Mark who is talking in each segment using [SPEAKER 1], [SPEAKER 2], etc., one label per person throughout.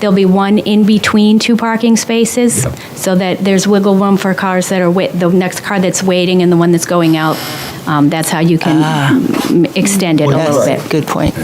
[SPEAKER 1] There'll be one in between two parking spaces, so that there's wiggle room for cars that are, wait- the next car that's waiting and the one that's going out. Um, That's how you can mm, extend it a little bit.
[SPEAKER 2] That's a good point.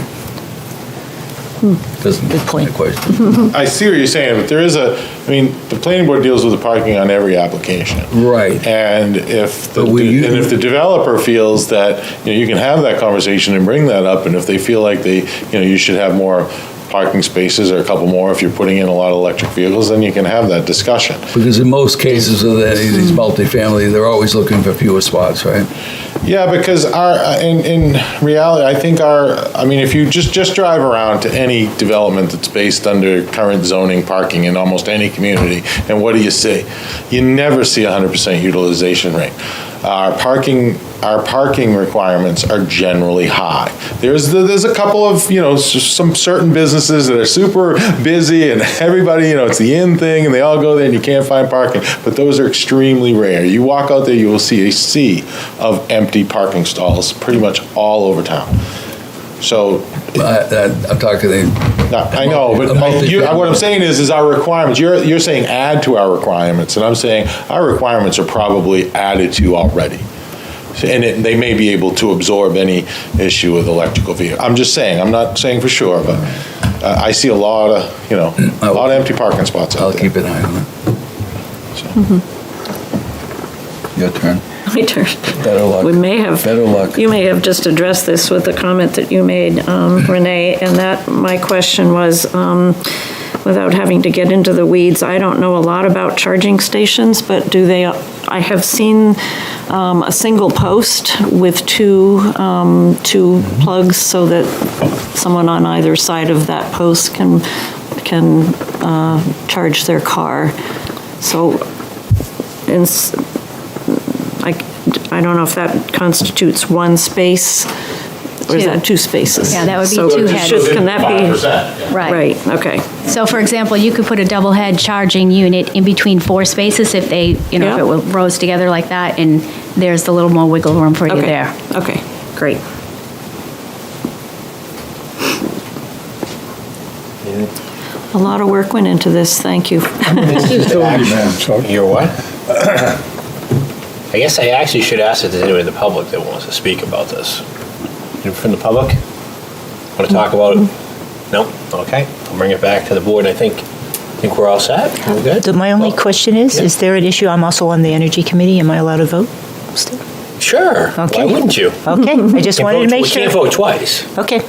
[SPEAKER 3] Doesn't
[SPEAKER 2] Hmm. Good point.
[SPEAKER 3] question.
[SPEAKER 4] I see what you're saying, but there is a, I mean, the planning board deals with the parking on every application.
[SPEAKER 3] Right.
[SPEAKER 4] And if, the
[SPEAKER 3] But we
[SPEAKER 4] de- and
[SPEAKER 3] use-
[SPEAKER 4] if the developer feels that, you know, you can have that conversation and bring that up, and if they feel like they, you know, you should have more parking spaces or a couple more, if you're putting in a lot of electric vehicles, then you can have that discussion.
[SPEAKER 3] Because in most cases of that, these
[SPEAKER 2] Hmm.
[SPEAKER 3] multifamily, they're always looking for fewer spots, right?
[SPEAKER 4] Yeah, because our uh, in in reality, I think our I mean, if you just just drive around to any development that's based under current zoning parking in almost any community, and what do you see? You never see a hundred percent utilization rate. Our parking our parking requirements are generally high. There's the, there's a couple of you know s- some certain businesses that are super busy and everybody you know it's the in thing and they all go there and you can't find parking, but those are extremely rare. You walk out there, you will see a sea of empty parking stalls pretty much all over town. So,
[SPEAKER 3] I- I- I'm talking, the-
[SPEAKER 4] not- I know, but I- you- what I'm saying is, is our requirements, you're, you're saying add to our requirements, and I'm saying our requirements are probably added to already. And it- they may be able to absorb any issue with electrical vehicle. I'm just saying, I'm not saying for sure, but uh, I see a lot of, you know, a lot of empty parking spots
[SPEAKER 3] I'll
[SPEAKER 4] out there.
[SPEAKER 3] keep an eye on it.
[SPEAKER 4] so.
[SPEAKER 3] Mm-hmm. Your turn.
[SPEAKER 5] My turn.
[SPEAKER 3] Better luck.
[SPEAKER 5] We may have.
[SPEAKER 3] Better luck.
[SPEAKER 5] You may have just addressed this with the comment that you made, um, Renee, and that, my question was, um, without having to get into the weeds, I don't know a lot about charging stations, but do they, I have seen um, a single post with two, um, two plugs so that someone on either side of that post can, can uh, charge their car. So, in s- I, I don't know if that constitutes one space, or is that two spaces?
[SPEAKER 1] Yeah, that would be
[SPEAKER 5] So
[SPEAKER 1] two
[SPEAKER 5] should-
[SPEAKER 1] heads.
[SPEAKER 5] Can that be?
[SPEAKER 1] Right.
[SPEAKER 5] Right, okay.
[SPEAKER 1] So for example, you could put a double head charging unit in between four spaces if they, you know, if
[SPEAKER 5] Yeah.
[SPEAKER 1] it were- rows together like that, and there's a little more wiggle room for you
[SPEAKER 5] Okay.
[SPEAKER 1] there.
[SPEAKER 5] Okay, great. A lot of work went into this, thank you.
[SPEAKER 6] Your what? I guess I actually should ask if there's anyone in the public that wants to speak about this. Anyone From the public? Want to talk about it? No? Okay. I'll bring it back to the board. I think, I think we're all set. We're good?
[SPEAKER 2] The- My only
[SPEAKER 6] Oh,
[SPEAKER 2] question is, is there an issue, I'm also on the Energy Committee, am I allowed to vote? still?
[SPEAKER 6] Sure.
[SPEAKER 2] Okay.
[SPEAKER 6] Why wouldn't you?
[SPEAKER 2] Okay, I just
[SPEAKER 6] Can't
[SPEAKER 2] wanted to
[SPEAKER 6] vote-
[SPEAKER 2] make
[SPEAKER 6] We can't
[SPEAKER 2] sure.
[SPEAKER 6] vote twice.
[SPEAKER 2] Okay,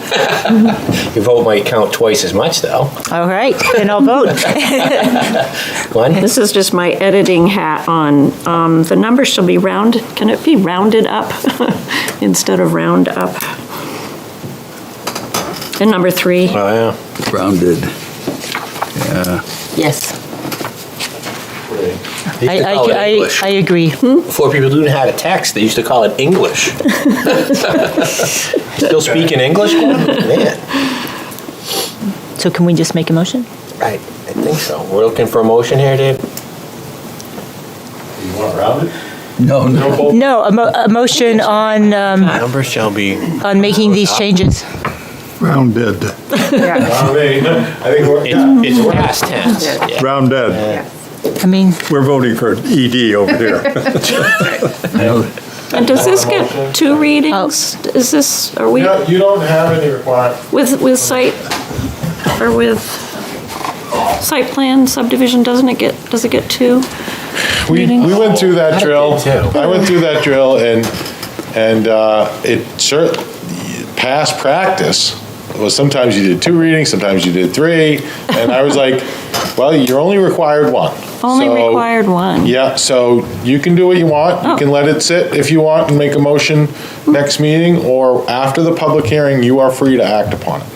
[SPEAKER 6] Your vote might count twice as much, though.
[SPEAKER 2] all right, then I'll vote.
[SPEAKER 6] Glenn?
[SPEAKER 5] This is just my editing hat on. Um, The number shall be round, can it be rounded up instead of round up? And number three.
[SPEAKER 6] Oh, yeah.
[SPEAKER 3] Rounded.
[SPEAKER 2] Yes,
[SPEAKER 6] They used
[SPEAKER 2] I,
[SPEAKER 6] to call it
[SPEAKER 2] I,
[SPEAKER 6] English.
[SPEAKER 2] I agree.
[SPEAKER 6] Before people knew how to text, they used to call it English. Still speaking English? Man,
[SPEAKER 2] So can we just make a motion?
[SPEAKER 6] I, I think so. We're looking for a motion here, Dave?
[SPEAKER 4] You want rounded?
[SPEAKER 3] No, no.
[SPEAKER 2] No, a mo, a motion on, um,
[SPEAKER 6] Number shall be.
[SPEAKER 2] on making these changes.
[SPEAKER 7] Round dead.
[SPEAKER 4] I think we're,
[SPEAKER 6] It's past tense. Yeah.
[SPEAKER 7] Round dead.
[SPEAKER 2] I mean,
[SPEAKER 7] We're voting for ED over here.
[SPEAKER 3] No.
[SPEAKER 5] And does this get two
[SPEAKER 1] Oh.
[SPEAKER 5] readings? Is this, are we
[SPEAKER 4] you don't have any requirement.
[SPEAKER 5] with, with site, or with site plan subdivision, doesn't it get, does it get two?
[SPEAKER 4] We, we went through that drill.
[SPEAKER 6] I did too.
[SPEAKER 4] I went through that drill and, and uh, it cer past practice was sometimes you did two readings, sometimes you did three. And I was like, well, you're only required one.
[SPEAKER 5] Only
[SPEAKER 4] So-
[SPEAKER 5] required Oh. one?
[SPEAKER 4] Yeah, so you can do what you want. You can let it sit if you want and make a motion next meeting or after the public hearing, you are free to act upon it.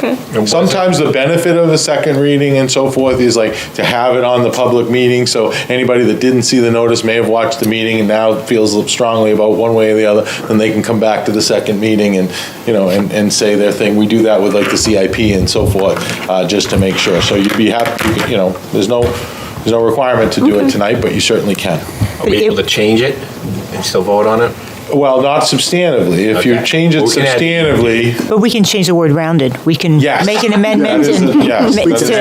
[SPEAKER 5] Okay,
[SPEAKER 4] Sometimes the benefit of a second reading and so forth is like to have it on the public meeting, so anybody that didn't see the notice may have watched the meeting and now feels strongly about one way or the other, then they can come back to the second meeting and, you know, and, and say their thing. We do that with like the CIP and so forth, uh, just to make sure. So you'd be happy, you could, you know, there's no, there's no requirement to do it tonight, but you certainly can.
[SPEAKER 6] Are we able to change it and still vote on it?
[SPEAKER 4] Well, not substantively. If you
[SPEAKER 6] Okay.
[SPEAKER 4] change it
[SPEAKER 6] We can add-
[SPEAKER 4] substantively,
[SPEAKER 2] But we can change the word rounded. We can
[SPEAKER 4] Yes.
[SPEAKER 2] make an amendment
[SPEAKER 4] That is a-
[SPEAKER 2] and
[SPEAKER 4] yes,
[SPEAKER 2] ma-
[SPEAKER 4] that is
[SPEAKER 2] to-